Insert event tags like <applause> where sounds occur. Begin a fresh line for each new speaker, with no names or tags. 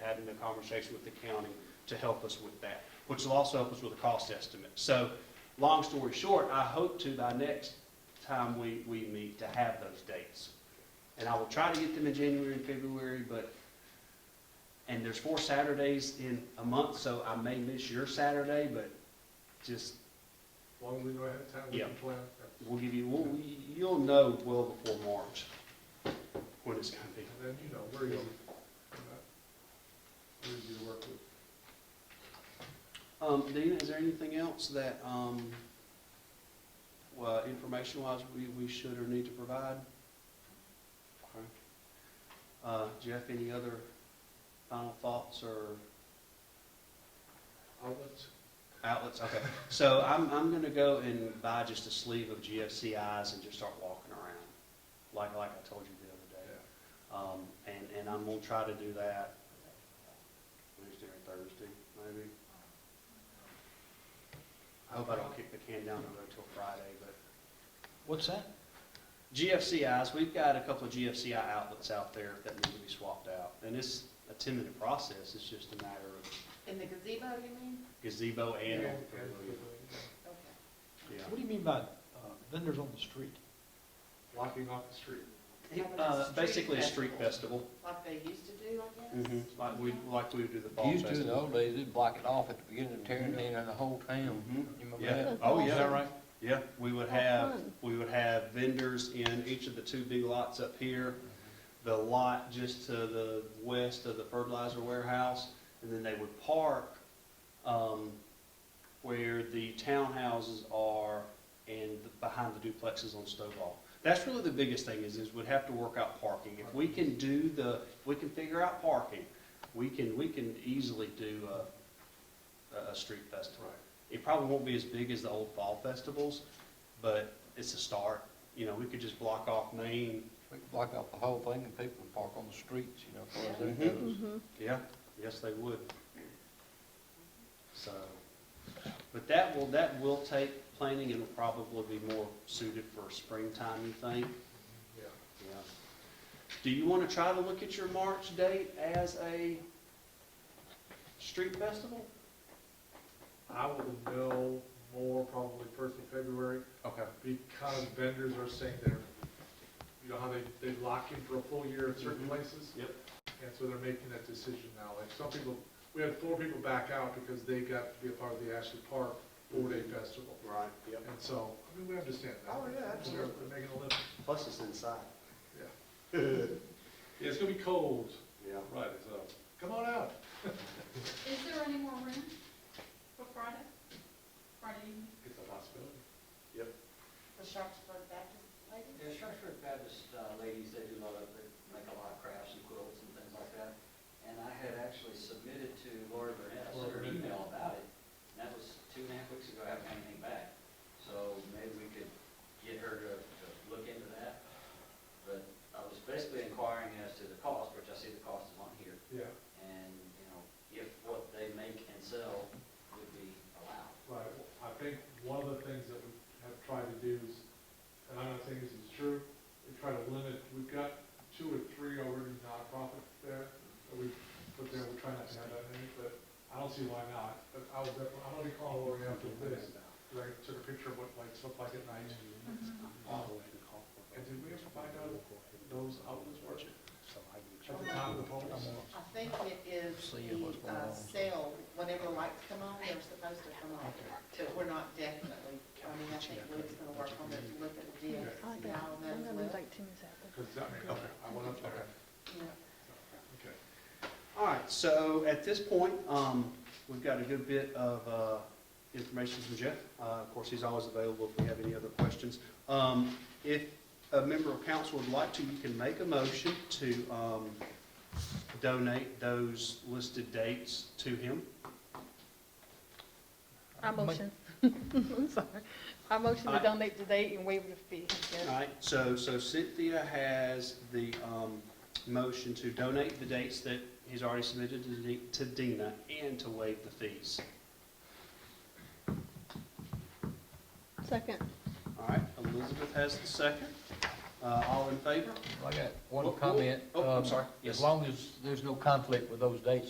that into conversation with the county to help us with that, which will also help us with a cost estimate. So, long story short, I hope to, by next time we, we meet, to have those dates. And I will try to get them in January and February, but, and there's four Saturdays in a month, so I may miss your Saturday, but just,
As long as we know ahead of time, we can
Yeah.
plan.
we'll give you, we'll, you'll know well before March when it's gonna be.
And then, you know, we're easy. We're not- We're easy to work with.
Um, Dina, is there anything else that, um, well, information-wise, we, we should or need to provide? Okay. Uh, Jeff, any other final thoughts or
Outlets,
outlets? Okay, so I'm, I'm gonna go and buy just a sleeve of GFCIs and just start walking around, like, like I told you the other day.
yeah.
Um, and, and I'm gonna try to do that Wednesday or Thursday, maybe. I hope I don't kick the can down the road till Friday, but
What's that?
GFCIs, we've got a couple of GFCI outlets out there that need to be swapped out. And it's a ten-minute process, it's just a matter of
In the gazebo, you mean?
gazebo and,
Yeah, and-
Okay.
yeah.
What do you mean by uh, vendors on the street?
Blocking off the street.
Uh, basically a street festival,
Like they used to do, I guess?
like we, like we would do the fall
Used to in the
festival.
old days, they'd block it off at the beginning of tearing down the whole town.
Mhm.
You remember
Yeah,
that?
oh, yeah. right? Yeah, we would have, we would have vendors in each of the two big lots up here, the lot just to the west of the fertilizer warehouse, and then they would park, um, where the townhouses are and behind the duplexes on Stovall. That's really the biggest thing is, is we'd have to work out parking. If we can do the, if we can figure out parking, we can, we can easily do a, a, a street festival. It probably won't be as big as the old fall festivals, but it's a start. You know, we could just block off Main.
We could block off the whole thing and people would park on the streets, you know, as far as
Yeah.
that goes.
Mm-hmm.
Yeah. Yes, they would. So, but that will, that will take planning and will probably be more suited for springtime, you think?
Yeah.
Yeah. Do you want to try to look at your March date as a street festival?
I will know more probably first of February
Okay.
because vendors are saying they're, you know how they, they lock in for a full year at certain
Mhm.
places?
Yep.
And so they're making that decision now. Like some people, we had four people back out because they got to be a part of the Ashley Park four-day festival.
Right, yep.
And so, I mean, we understand that.
Oh, yeah, absolutely.
They're making a living.
Plus it's inside.
Yeah, it's gonna be cold.
Yeah.
Right, so, come on out.
Is there any more room for Friday? Friday evening?
It's a possibility.
The Sharpsburg Baptist lady?
Yeah, Sharpsburg Baptist uh, ladies, they do a lot of, they make a lot of crafts and quilts and things like that. And I had actually submitted to Laura Burnett, I sent her an email about it, and that was two and a half weeks ago, I haven't had anything back. So maybe we could get her to, to look into that. But I was basically inquiring as to the cost, which I see the cost is on here,
Yeah,
and, you know, if what they make and sell would be allowed.
right. I think one of the things that we have tried to do is, and I'm not saying this is true, we try to limit, we've got two or three already nonprofit there that we put there, we're trying not to have that many, but I don't see why not. But I will definitely, I'm gonna call Lori after this, because I took a picture of what lights look like at night. And did we ever find out if those outlets were at the top of the polls?
I think it is
See what's
the
going
uh,
on.
sale, whenever lights come on, they're supposed to come on. But we're not definitely, I mean, I think Luke's gonna work on it, look at the deal.
Okay.
I like that. I'm gonna like Timmy's apple.
Because that, okay, I went up there.
Yeah.
Okay.
All right, so at this point, um, we've got a good bit of, uh, information from Jeff. Uh, of course, he's always available if we have any other questions. Um, if a member of council would like to, you can make a motion to, um, donate those listed dates to him.
<laughs>
I motion, I'm sorry. I motion to
Aye.
donate the date and waive the fee.
All right, so, so Cynthia has the, um, motion to donate the dates that he's already submitted to Di- to Dina and to waive the fees.
Second.
All right, Elizabeth has the second. Uh, all in favor?
I got
Oh,
one
oh,
comment.
oh, I'm
um,
sorry. Yes.
As long as there's no conflict with those dates,